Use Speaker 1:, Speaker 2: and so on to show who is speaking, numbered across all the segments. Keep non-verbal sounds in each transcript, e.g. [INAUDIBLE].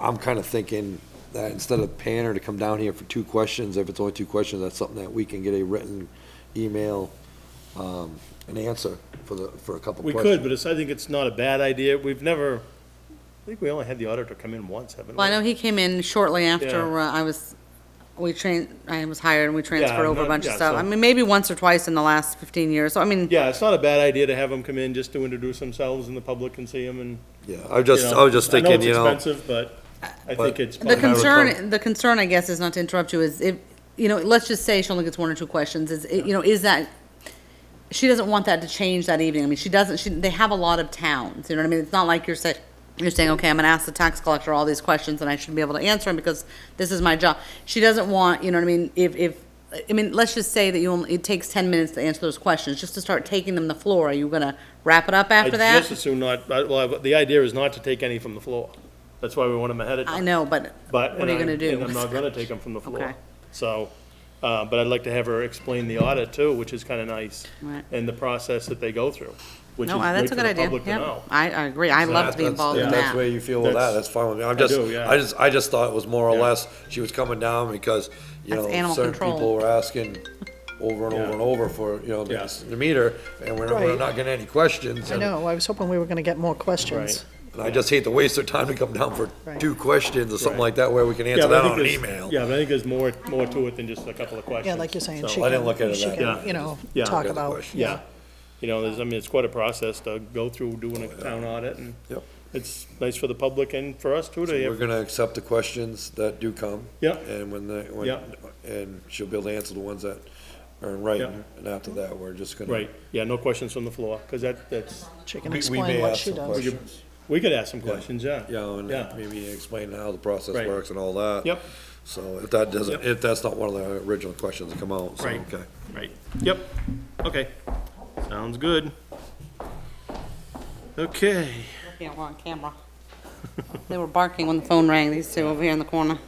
Speaker 1: I'm kind of thinking that instead of paying her to come down here for two questions, if it's only two questions, that's something that we can get a written email, um, an answer for the, for a couple
Speaker 2: We
Speaker 1: questions.
Speaker 2: could, but it's, I think it's not a bad idea. We've never, I think we only had the auditor come in once, haven't we?
Speaker 3: Well, I know he came in shortly after
Speaker 2: Yeah.
Speaker 3: uh, I was, we trained, I was hired and we transferred
Speaker 2: I'm
Speaker 3: over a
Speaker 2: not-
Speaker 3: bunch of
Speaker 2: yeah,
Speaker 3: stuff.
Speaker 2: so-
Speaker 3: I mean, maybe once or twice in the last fifteen years, so I mean,
Speaker 2: Yeah, it's not a bad idea to have them come in just to introduce themselves and the public can see them and,
Speaker 1: Yeah, I was
Speaker 2: you
Speaker 1: just, I was just
Speaker 2: know,
Speaker 1: thinking, you
Speaker 2: I know
Speaker 1: know,
Speaker 2: it's expensive, but I
Speaker 1: But-
Speaker 2: think it's.
Speaker 3: the
Speaker 2: probably-
Speaker 3: concern, the concern, I guess, is not to interrupt you, is if, you know, let's just say she only gets one or two questions, is, it- you know, is that, she doesn't want that to change that evening. I mean, she doesn't, she, they have a lot of towns, you know what I mean? It's not like you're saying, you're saying, okay, I'm gonna ask the tax collector all these questions and I should be able to answer them because this is my job. She doesn't want, you know what I mean, if, if, I mean, let's just say that you only, it takes ten minutes to answer those questions, just to start taking them the floor. Are you gonna wrap it up after
Speaker 2: I
Speaker 3: that?
Speaker 2: just assume not, I- well, but the idea is not to take any from the floor. That's why we want them ahead of
Speaker 3: I
Speaker 2: time.
Speaker 3: know, but
Speaker 2: But,
Speaker 3: what
Speaker 2: and
Speaker 3: are you
Speaker 2: I'm,
Speaker 3: gonna do?
Speaker 2: and I'm not gonna take them from the floor.
Speaker 3: Okay.
Speaker 2: So, uh, but I'd like to have her explain the audit too, which is kinda nice.
Speaker 3: Right.
Speaker 2: And the process that they go through, which is
Speaker 3: No, uh,
Speaker 2: great
Speaker 3: that's
Speaker 2: for
Speaker 3: a good
Speaker 2: the
Speaker 3: idea.
Speaker 2: public to
Speaker 3: Yep.
Speaker 2: know.
Speaker 3: I, I agree. I love to be
Speaker 1: That's-
Speaker 3: involved
Speaker 1: if
Speaker 3: in
Speaker 1: That's where
Speaker 3: that.
Speaker 1: you feel with that,
Speaker 2: That's-
Speaker 1: that's fine with me. I'm
Speaker 2: I
Speaker 1: just,
Speaker 2: do, yeah.
Speaker 1: I just, I just thought it was more or
Speaker 2: Yeah.
Speaker 1: less, she was coming down because, you
Speaker 3: That's
Speaker 1: know,
Speaker 3: animal
Speaker 1: certain
Speaker 3: control.
Speaker 1: people were asking over and
Speaker 2: Yeah.
Speaker 1: over and over for, you know,
Speaker 2: Yeah.
Speaker 1: to meet her, and we're, we're
Speaker 4: Right.
Speaker 1: not getting any questions.
Speaker 4: I
Speaker 1: and-
Speaker 4: know, I was hoping we were gonna get more questions.
Speaker 1: And I just hate to waste their time to come down for
Speaker 4: Right.
Speaker 1: two questions or something
Speaker 2: Right.
Speaker 1: like that where we can
Speaker 2: Yeah,
Speaker 1: answer
Speaker 2: but I
Speaker 1: that
Speaker 2: think
Speaker 1: on an
Speaker 2: there's-
Speaker 1: email.
Speaker 2: Yeah, but I think there's more, more to it than just a couple of questions.
Speaker 4: Yeah, like you're saying,
Speaker 2: So,
Speaker 4: she
Speaker 1: I didn't look at
Speaker 4: can,
Speaker 1: it
Speaker 4: she
Speaker 1: that
Speaker 2: way.
Speaker 4: can, you know,
Speaker 2: Yeah.
Speaker 4: talk
Speaker 1: Yeah.
Speaker 4: about.
Speaker 1: Question.
Speaker 2: Yeah, you know, there's, I mean, it's quite a process to go through doing a town audit and
Speaker 1: Yep.
Speaker 2: it's nice for the public and for us too to
Speaker 1: We're
Speaker 2: hear.
Speaker 1: gonna accept the questions that do come.
Speaker 2: Yeah.
Speaker 1: And when the,
Speaker 2: Yeah.
Speaker 1: when, and she'll be able to answer the ones that are in writing, and after that, we're just gonna.
Speaker 2: Right, yeah, no questions from the floor, because that, that's,
Speaker 4: She can
Speaker 1: We- we
Speaker 4: explain
Speaker 1: may
Speaker 4: what
Speaker 1: ask
Speaker 4: she
Speaker 1: some
Speaker 4: does.
Speaker 1: questions.
Speaker 2: we could ask some questions, yeah.
Speaker 1: Yeah, oh, and
Speaker 2: Yeah,
Speaker 1: maybe explain how the process
Speaker 2: Right.
Speaker 1: works and all that.
Speaker 2: Yep.
Speaker 1: So if that doesn't,
Speaker 2: Yep.
Speaker 1: if that's not one of the original questions that come out, so,
Speaker 2: Right.
Speaker 1: okay.
Speaker 2: right, yep, okay, sounds good. Okay,
Speaker 3: Yeah, we're on camera. They were barking when the phone rang, these two over here in the corner.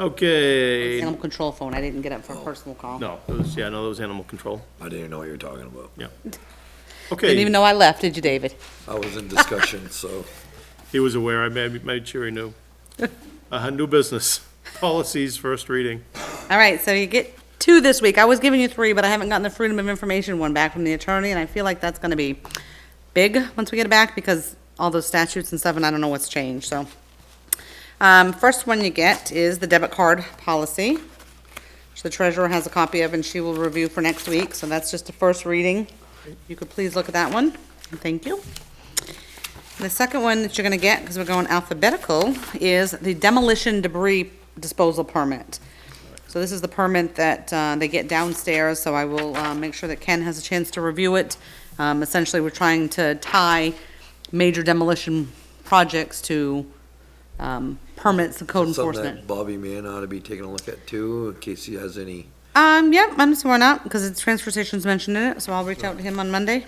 Speaker 2: okay,
Speaker 3: Animal control phone. I didn't get up for a personal call.
Speaker 2: no, those, yeah, no, those animal control,
Speaker 1: I didn't even know what you were talking about.
Speaker 2: yeah.
Speaker 3: Didn't even
Speaker 2: Okay,
Speaker 3: know I left, did you, David?
Speaker 1: I was in discussion, so.
Speaker 2: he was aware, I made, made sure he
Speaker 3: [LAUGHS]
Speaker 2: knew. Uh, new business, policies, first reading.
Speaker 3: All right, so you get two this week. I was giving you three, but I haven't gotten the Freedom of Information one back from the attorney, and I feel like that's gonna be big once we get it back, because all those statutes and stuff, and I don't know what's changed, so. Um, first one you get is the debit card policy, which the treasurer has a copy of, and she will review for next week, so that's just the first reading. You could please look at that one, and thank you. The second one that you're gonna get, because we're going alphabetical, is the demolition debris disposal permit. So this is the permit that uh, they get downstairs, so I will uh, make sure that Ken has a chance to review it. Um, Essentially, we're trying to tie major demolition projects to um, permits and code
Speaker 1: Something
Speaker 3: enforcement.
Speaker 1: that Bobby Mann ought to be taking a look at too, in case he has any.
Speaker 3: Um, yep, I'm just sworn out because it's transfer station's mentioned in it, so I'll reach out to him on Monday.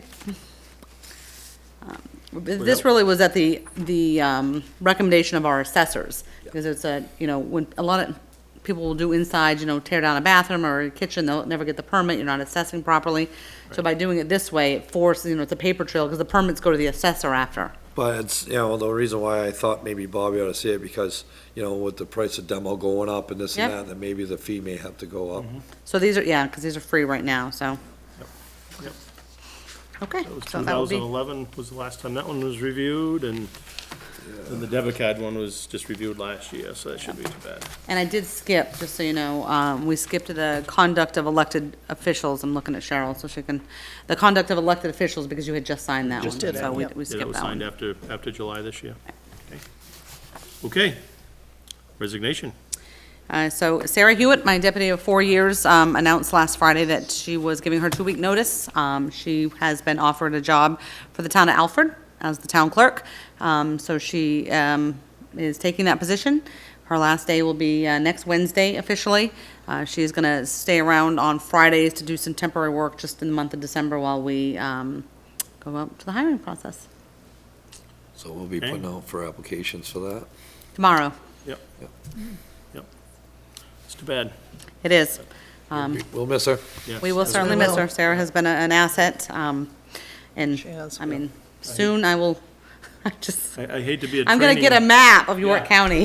Speaker 3: Um, This really was at the, the, um, recommendation of our assessors, because it's a, you know, when, a lot of people will do inside, you know, tear down a bathroom or a kitchen, they'll never get the permit, you're not assessing properly. So by doing it this way, it forces, you know, it's a paper trail, because the permits go to the assessor after.
Speaker 1: But it's, you know, the reason why I thought maybe Bobby ought to see it because, you know, with the price of demo going up and this and
Speaker 3: Yep.
Speaker 1: that, then maybe the fee may have to go up.
Speaker 3: So these are, yeah, because these are free right now, so.
Speaker 2: Yep.
Speaker 3: Okay,
Speaker 2: That was
Speaker 3: so that would be.
Speaker 2: 2011 was the last time that one was reviewed, and and the debit card one was just reviewed last year, so that shouldn't be too bad.
Speaker 3: And I did skip, just so you know, um, we skipped the conduct of elected officials. I'm looking at Cheryl, so she can, the conduct of elected officials, because you had just signed that one.
Speaker 4: Just did it,
Speaker 3: So we,
Speaker 4: yep.
Speaker 2: Yeah,
Speaker 3: we
Speaker 2: that
Speaker 3: skipped
Speaker 2: was
Speaker 3: that
Speaker 2: signed
Speaker 3: one.
Speaker 2: after, after July this year. Okay, Okay. resignation.
Speaker 3: Uh, so Sarah Hewitt, my deputy of four years, um, announced last Friday that she was giving her two-week notice. Um, she has been offered a job for the town of Alfred as the town clerk. Um, so she, um, is taking that position. Her last day will be, uh, next Wednesday officially. Uh, she is gonna stay around on Fridays to do some temporary work just in the month of December while we, um, go up to the hiring process.
Speaker 1: So we'll be
Speaker 2: Okay.
Speaker 1: putting out for applications for that.
Speaker 3: Tomorrow,
Speaker 2: Yep. Yep. It's too bad.
Speaker 3: it is. Um,
Speaker 1: We'll miss her.
Speaker 2: Yes.
Speaker 3: We will
Speaker 2: That's-
Speaker 3: certainly miss her.
Speaker 4: will.
Speaker 3: Sarah has been a- an asset, um, and,
Speaker 4: She has
Speaker 3: I
Speaker 4: been.
Speaker 3: mean, soon I will, [LAUGHS] I just,
Speaker 2: I I hate to be a
Speaker 3: I'm gonna
Speaker 2: training-
Speaker 3: get a map of York
Speaker 2: Yeah.
Speaker 3: County.